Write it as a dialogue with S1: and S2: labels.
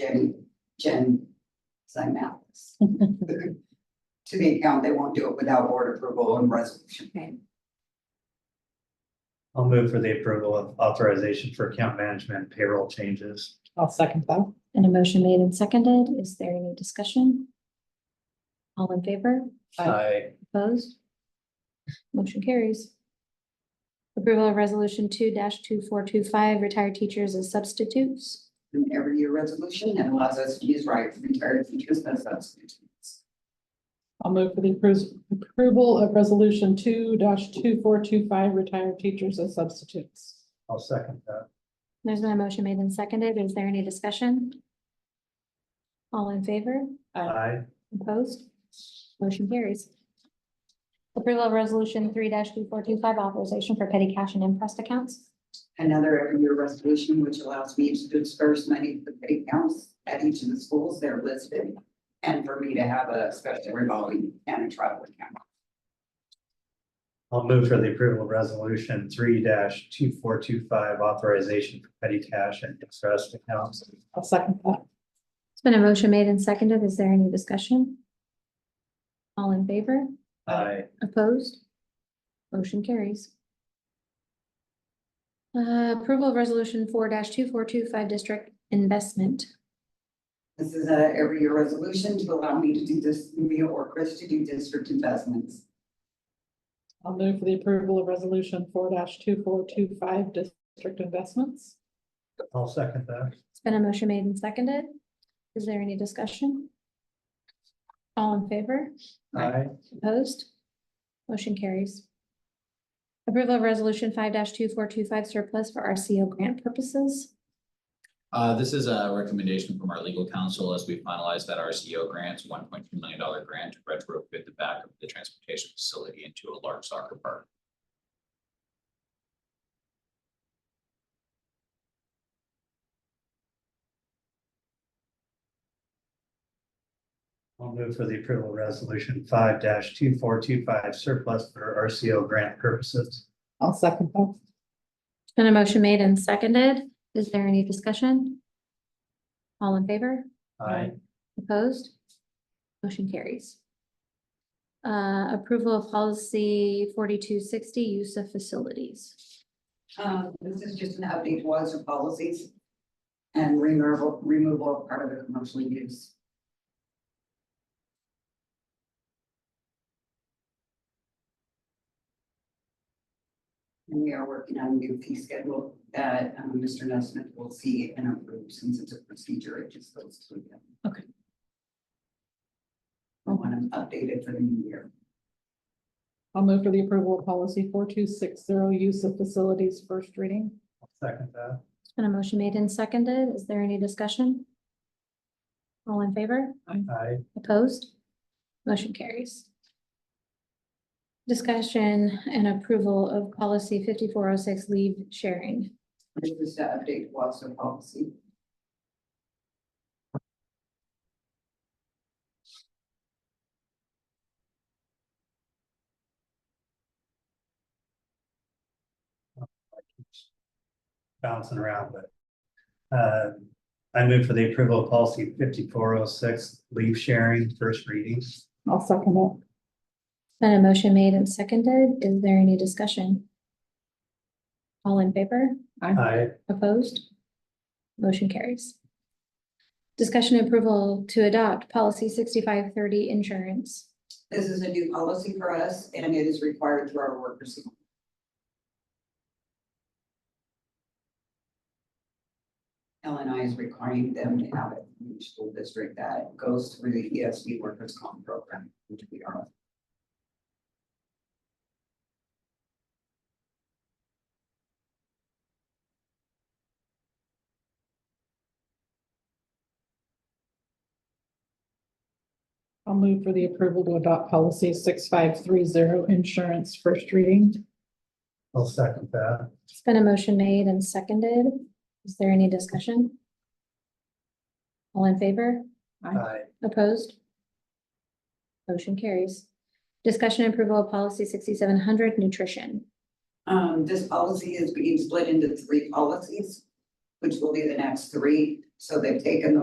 S1: Jen, Jen sign out this. To the account, they won't do it without board approval and resolution.
S2: I'll move for the approval of authorization for account management and payroll changes.
S3: I'll second that.
S4: And a motion made and seconded. Is there any discussion? All in favor?
S2: Aye.
S4: Opposed? Motion carries. Approval of resolution two two four two five, retired teachers as substitutes.
S1: An every year resolution that allows us to use right for retired teachers as substitutes.
S3: I'll move for the appro- approval of resolution two two four two five, retired teachers as substitutes.
S2: I'll second that.
S4: There's been a motion made and seconded. Is there any discussion? All in favor?
S2: Aye.
S4: Opposed? Motion carries. Approval of resolution three two four two five, authorization for petty cash and impressed accounts.
S1: Another every year resolution which allows me to disperse money to the pay accounts at each of the schools that are listed. And for me to have a special revolving and a travel account.
S2: I'll move for the approval of resolution three two four two five authorization for petty cash and interest accounts.
S3: I'll second that.
S4: It's been a motion made and seconded. Is there any discussion? All in favor?
S2: Aye.
S4: Opposed? Motion carries. Uh, Approval of Resolution four two four two five district investment.
S1: This is a every year resolution to allow me to do this, me or Chris to do district investments.
S3: I'll move for the approval of resolution four two four two five, district investments.
S2: I'll second that.
S4: It's been a motion made and seconded. Is there any discussion? All in favor?
S2: Aye.
S4: Opposed? Motion carries. Approval of Resolution five two four two five surplus for RCO grant purposes.
S5: Uh, this is a recommendation from our legal counsel as we finalize that RCO grant, one point two million dollar grant to retrofit the back of the transportation facility into a large soccer park.
S2: I'll move for the approval of resolution five two four two five surplus for RCO grant purposes.
S3: I'll second that.
S4: It's Been a motion made and seconded. Is there any discussion? All in favor?
S2: Aye.
S4: Opposed? Motion carries. Uh, approval of policy forty-two sixty, use of facilities.
S1: Um, this is just an update to us of policies. And removal, removal of part of the commercial use. And we are working on a new fee schedule that um, Mr. Nesmith will see and approve since it's a procedure, it just goes to him.
S4: Okay.
S1: I want them updated for the new year.
S3: I'll move for the approval of policy four two six zero, use of facilities, first reading.
S2: I'll second that.
S4: It's been a motion made and seconded. Is there any discussion? All in favor?
S2: Aye.
S4: Opposed? Motion carries. Discussion and approval of policy fifty-four oh six, leave sharing.
S1: This is to update Wausau policy.
S2: bouncing around, but. Uh, I move for the approval of policy fifty-four oh six, leave sharing, first reading.
S3: I'll second that.
S4: Been a motion made and seconded. Is there any discussion? All in favor?
S2: Aye.
S4: Opposed? Motion carries. Discussion and approval to adopt policy sixty-five thirty insurance.
S1: This is a new policy for us and it is required through our workers. LNI is requiring them to have it in each school district that goes through the ESD workers comp program, which we are.
S3: I'll move for the approval to adopt policy six five three zero, insurance, first reading.
S2: I'll second that.
S4: It's been a motion made and seconded. Is there any discussion? All in favor?
S2: Aye.
S4: Opposed? Motion carries. Discussion and approval of policy sixty-seven hundred nutrition.
S1: Um, this policy is being split into three policies, which will be the next three. So they've taken the